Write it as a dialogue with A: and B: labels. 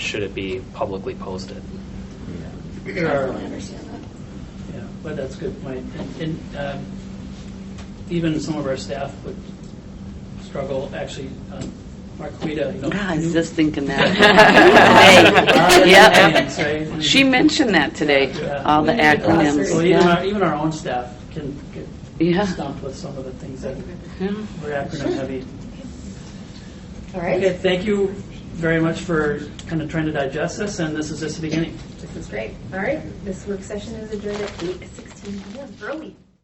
A: should it be publicly posted?
B: There
C: I
B: are,
C: fully understand that.
B: yeah, but that's a good point. And- And um, even some of our staff would struggle, actually, um, Mark Quita, you know.
D: Yeah, I
B: you-
D: was just thinking
B: Our
D: that.
B: acronyms,
D: Yep.
B: right? And-
D: She mentioned that today,
B: Yeah.
D: all the
B: So
D: acronyms.
B: even
D: Yeah.
B: our, even our own staff can
D: Yeah.
B: get stumped with some of the things that
D: Yeah.
B: were acronym heavy.
C: All
B: Okay,
C: right,
B: thank you very much for kind of trying to digest this, and this is just the beginning.
C: that's great. All right, this work session is adjourned at eight sixteen PM, early.